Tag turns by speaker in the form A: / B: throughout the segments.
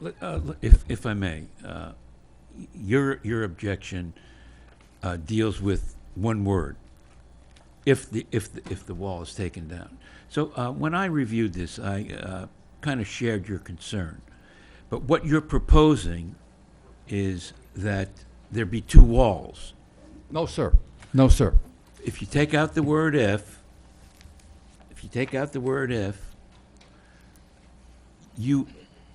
A: Let- uh, let- If, if I may, uh, y- your, your objection uh, deals with one word, if the, if, the- if the wall is taken down. So uh, when I reviewed this, I uh, kind of shared your concern. But what you're proposing is that there be two walls.
B: No, sir. No, sir.
A: If you take out the word if, if you take out the word if, you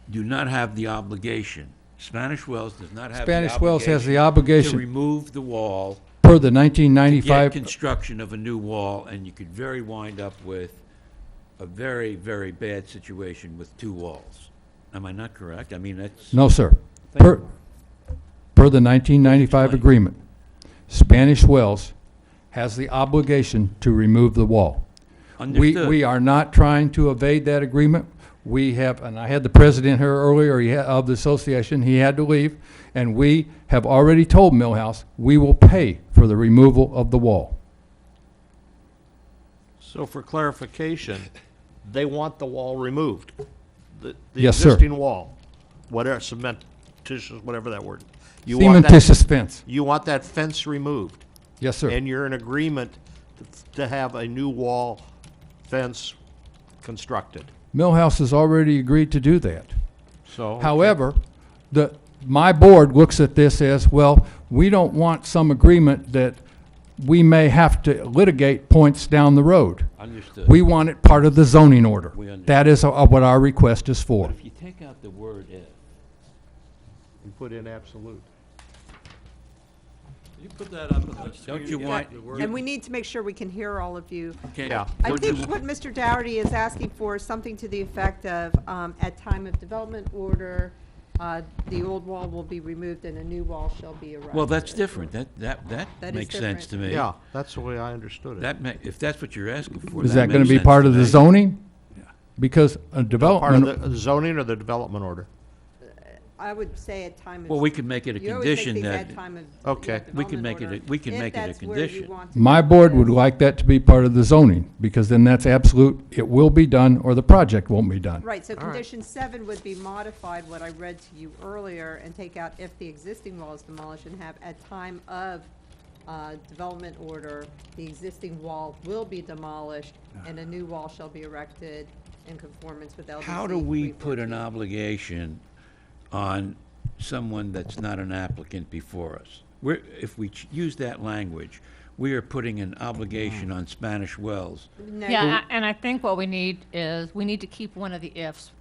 A: do not have the obligation. Spanish Wells does not have the obligation.
B: Spanish Wells has the
A: To
B: obligation
A: remove the wall,
B: per the
A: get
B: 1995,
A: construction of a new wall, and you could very wind up with a very, very bad situation with two walls. Am I not correct? I mean, that's.
B: no, sir. Per, per the 1995
A: Explain.
B: agreement, Spanish Wells has the obligation to remove the wall. We,
A: Understood.
B: we are not trying to evade that agreement. We have, and I had the president here earlier he ha- of the association, he had to leave, and we have already told Millhouse, we will pay for the removal of the wall.
C: So for clarification, they want the wall removed? The the
B: Yes, sir.
C: existing wall, whatever, cementitious, whatever that word. You want that-
B: Cementitious fence.
C: You want that fence removed?
B: Yes, sir.
C: And you're in agreement to- to have a new wall fence constructed?
B: Millhouse has already agreed to do that.
C: So.
B: However, the, my board looks at this as, well, we don't want some agreement that we may have to litigate points down the road.
A: Understood.
B: We want it part of the zoning order.
A: We understand.
B: That is uh, what our request is for.
A: If you take out the word if,
C: And put in absolute.
D: You put that up and let's.
A: Don't you
D: get
A: want-
D: the
A: you-
D: word.
E: And we need to make sure we can hear all of you.
A: okay?
C: Yeah.
E: I
A: Don't you-
E: think what Mr. Dougherty is asking for is something to the effect of, um, at time of development order, uh, the old wall will be removed and a new wall shall be erected.
A: Well, that's different. That, that, that
E: That is
A: makes sense to
E: different.
A: me.
C: Yeah, that's the way I understood it.
A: That ma, if that's what you're asking for,
B: Is that
A: makes
B: gonna be
A: sense
B: part
A: to
B: of the
A: me.
B: zoning? Because a
C: Part of
B: development,
C: the zoning or the development order?
E: I would say at time of.
A: Well, we can make it a
E: You always
A: condition
E: make these
A: that,
E: at time of.
C: Okay.
E: yeah,
A: We can make it a-
E: development
A: we can
E: order,
A: make it a
E: if that's where you
A: condition.
E: want to
B: my
E: go
B: board
E: with
B: would
E: this.
B: like that to be part of the zoning, because then that's absolute, it will be done, or the project won't be done.
E: Right, so condition seven would be modified, what I read to you earlier, and take out if the existing wall is demolished and have at time of uh, development order, the existing wall will be demolished
A: Ah.
E: and a new wall shall be erected in conformance with LDC.
A: how do we put an
E: 314.
A: obligation on someone that's not an applicant before us? We're, if we ch- use that language, we are putting an obligation on Spanish Wells.
E: No,
F: Yeah, a- and I think what we need is, we need to keep one of the ifs.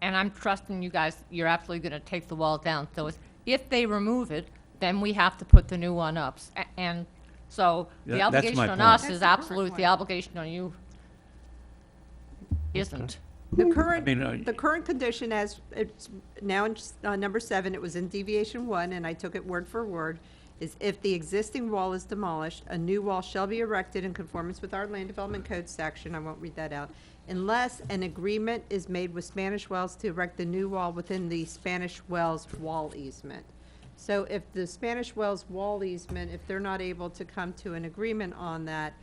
F: And I'm trusting you guys, you're absolutely going to take the wall down. So it's, if they remove it, then we have to put the new one up. S- a- And so the
A: Yeah, that's my
F: obligation on
A: point.
F: us
E: That's
F: is
E: the current
F: absolute, the
E: one.
F: obligation on you isn't.
E: The
A: mean, uh,
E: current, the current condition as, it's now in, s- uh, number seven, it was in deviation one, and I took it word for word, is if the existing wall is demolished, a new wall shall be erected in conformance with our land development code section, I won't read that out, unless an agreement is made with Spanish Wells to erect the new wall within the Spanish Wells wall easement. So if the Spanish Wells wall easement, if they're not able to come to an agreement on that,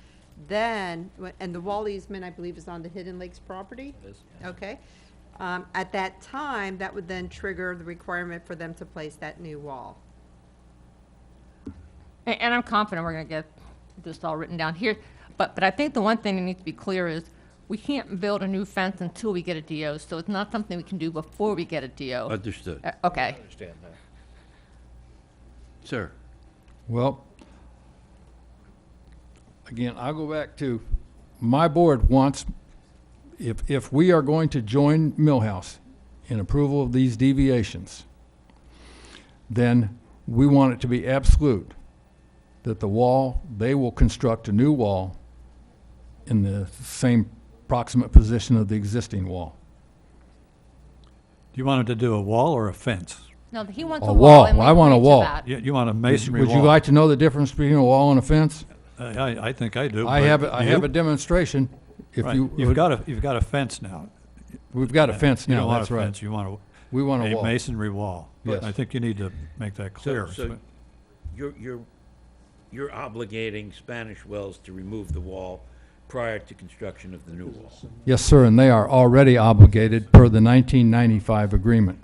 E: then, and the wall easement, I believe, is on the Hidden Lakes property? Okay. Um, At that time, that would then trigger the requirement for them to place that new wall.
F: A- And I'm confident we're going to get this all written down here. But, but I think the one thing that needs to be clear is, we can't build a new fence until we get a DO. So it's not something we can do before we get a DO.
A: Understood.
F: Uh, Okay.
A: Sir,
B: Well, again, I'll go back to, my board wants, if, if we are going to join Millhouse in approval of these deviations, then we want it to be absolute that the wall, they will construct a new wall in the same proximate position of the existing wall.
D: Do you want him to do a wall or a fence?
F: No, he wants
B: A
F: a wall.
B: wall.
F: and we
B: I want a
F: agreed to
B: wall.
F: that.
D: You, you want a masonry
B: Would
D: wall? Uh,
B: you like to know the difference between a wall and a fence?
D: I, I- I think I do.
B: I
D: but
B: have, a- I
D: you?
B: have a demonstration. If
D: Right.
B: you,
D: You've got a, you've got a fence now.
B: we've got a fence
D: You don't
B: now,
D: want a
B: that's right.
D: fence, you want
B: We
D: a,
B: want a
D: a
B: wall.
D: masonry wall.
B: Yes.
D: I think you need to make that
A: so,
D: clear.
A: so you're, you're, you're obligating Spanish Wells to remove the wall prior to construction of the new wall.
B: Yes, sir, and they are already obligated per the 1995 agreement.